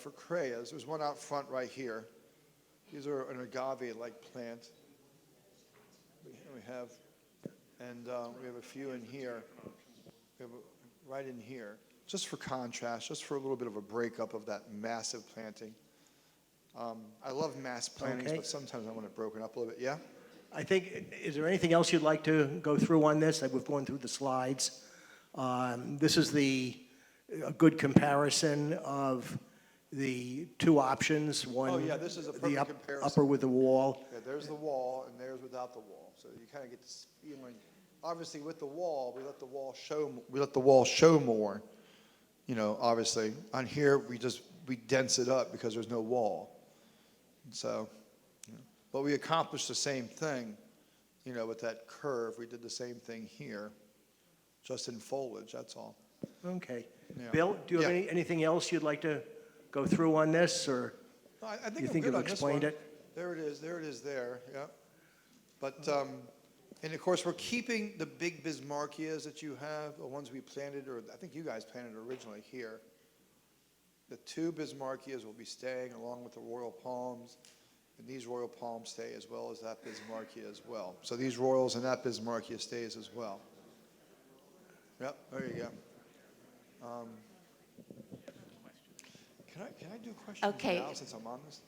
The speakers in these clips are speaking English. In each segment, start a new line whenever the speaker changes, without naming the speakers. for crayas. There's one out front right here. These are an agave-like plant. We we have, and uh, we have a few in here. We have a- right in here, just for contrast, just for a little bit of a breakup of that massive planting. Um, I love mass plantings,
Okay.
but sometimes I want it broken up a little bit. Yeah.
I think, is there anything else you'd like to go through on this? Like, We've gone through the slides. Um, This is the, a good comparison of the two options, one.
Oh, yeah, this is a
the
perfect
up-
comparison.
Upper with the wall.
Yeah, there's the wall and there's without the wall. So you kind of get this feeling. Obviously, with the wall, we let the wall show. m- We let the wall show more. You know, obviously, on here we just we dense it up because there's no wall. And so, you know, but we accomplished the same thing. You know, with that curve, we did the same thing here, just in foliage. That's all.
Okay.
Yeah.
Bill, do you have
Yeah.
any, anything else you'd like to go through on this, or?
No, I, I think
You
I'm
think
good
you've
on this
explained
one.
it?
There it is. There it is. There. Yeah. But um, and of course we're keeping the big bismarckias that you have, the ones we planted, or I think you guys planted originally here. The two bismarckias will be staying along with the royal palms, and these royal palms stay as well as that bismarckia as well. So these royals and that bismarckia stays as well. Yep. There you go. Um, can I, can I do questions
Okay.
now since I'm on this?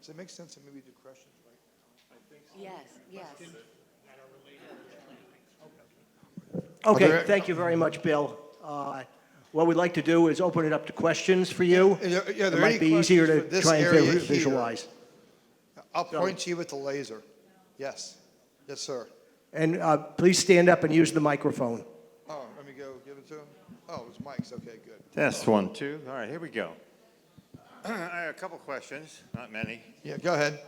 Does it make sense to maybe do questions right
Yes, yes.
Okay,
there-
thank you very much, Bill. Uh, What we'd like to do is open it up to questions for you.
Yeah, yeah, yeah, are
It
there any
might be easier
questions for
to
this
try and
area
vi-
here?
visualize.
I'll
So-
point you with the laser. Yes. Yes, sir.
And uh, please stand up and use the microphone.
Oh, let me go give it to him. Oh, it's Mike's. Okay, good.
Test one, two. All right, here we go. I have a couple questions, not many.
Yeah, go ahead.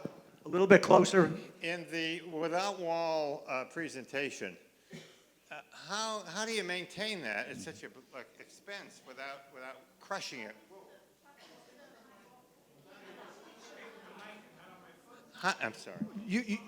A little bit closer,
In the without wall uh, presentation, uh, how how do you maintain that at such a like, expense without without crushing it? Huh, I'm sorry.
You, you,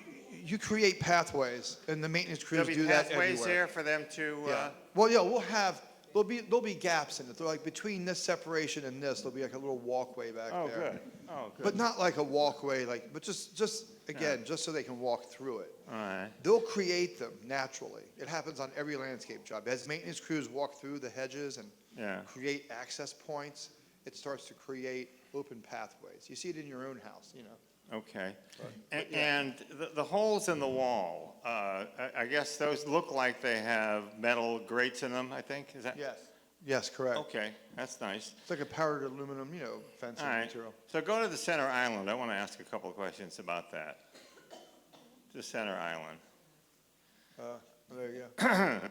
you create pathways, and the maintenance crews
There'll be
do that
pathways
everywhere.
there for them to.
Yeah.
Uh,
Well, yeah, we'll have, there'll be, there'll be gaps in it. They're like between this separation and this, there'll be like a little walkway back
oh,
there.
good. Oh, good.
But not like a walkway, like, but just, just, again, just so they can walk through it.
All right.
They'll create them naturally. It happens on every landscape job. As maintenance crews walk through the hedges and
Yeah.
create access points, it starts to create open pathways. You see it in your own house, you know.
Okay.
But
And,
yeah.
and the, the holes in the wall, uh, I, I guess those look like they have metal grates in them, I think, is that?
Yes. Yes, correct.
Okay, that's nice.
It's like a powdered aluminum, you know, fencing
All right.
material.
So go to the center island. I want to ask a couple of questions about that. The center island.
Uh, there you go. The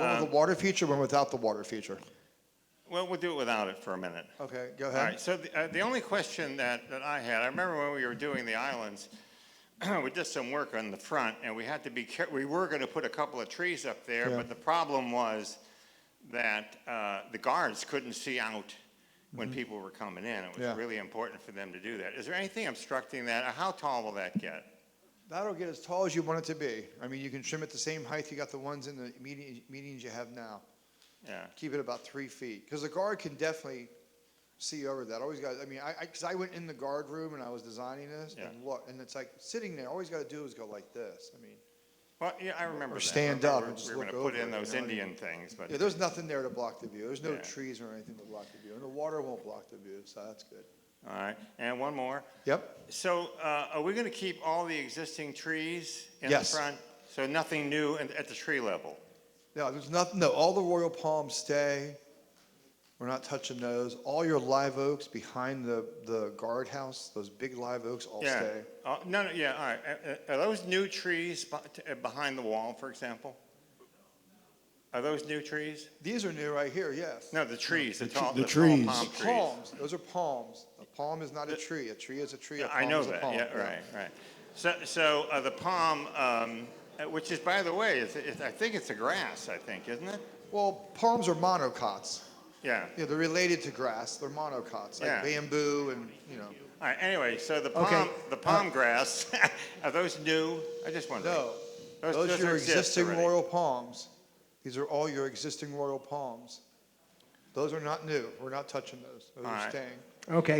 one
Um,
with the water feature, one without the water feature.
Well, we'll do it without it for a minute.
Okay, go
All
ahead.
right, so the, uh, the only question that, that I had, I remember when we were doing the islands, we did some work on the front, and we had to be care, we were gonna put a couple of trees up there,
Yeah.
but the problem was that, uh, the guards couldn't see out when people were coming in. It
Mm-hmm. Yeah.
was really important for them to do that. Is there anything obstructing that? Or How tall will that get?
That'll get as tall as you want it to be. I mean, you can trim it the same height you got the ones in the meeting, meetings you have now.
Yeah,
keep it about three feet because the guard can definitely see over that. Always got. I mean, I because I, went in the guard room and I was designing this
Yeah.
and look, and it's like sitting there. All he's got to do is go like this. I mean,
well, yeah, I remember that.
stand
We
up
were-
and just
We were
look
gonna put
over
in
it, you
those
know, you-
Indian things, but,
yeah, there's nothing there to block the view. There's no
Yeah.
trees or anything to block the view, and the water won't block the view, so that's good.
all right, and one more.
Yep.
So uh, are we going to keep all the existing trees in the
Yes.
front? So nothing new in- at the tree level?
No, there's nothing. No, all the royal palms stay. We're not touching those. All your live oaks behind the the guardhouse, those big live oaks, all
Yeah.
stay.
Uh, No, no, yeah, all right. Uh, uh, Are those new trees beh- t- uh, behind the wall, for example? Are those new trees?
These are new right here. Yes.
No, the trees, the
The tr-
tall,
the
the tall
trees.
palm
The
trees.
Palms, those are palms. A palm is not a tree. A tree is a tree. A
I
palm
know
is a
that,
palm.
yeah, right, right. So, so uh, the palm, um, uh, which is, by the way, it's- it's- I think it's a grass, I think, isn't it?
Well, palms are monocots.
Yeah.
Yeah, they're related to grass. They're monocots, like
Yeah.
bamboo and, you know.
All right, anyway, so the
Okay.
palm,
Uh,
the palm grass, are those new? I just wondered.
No,
Those-
those are
those
your
exist
existing
already.
royal palms. These are all your existing royal palms. Those are not new. We're not touching those. Those
All
are
right.
staying.
Okay,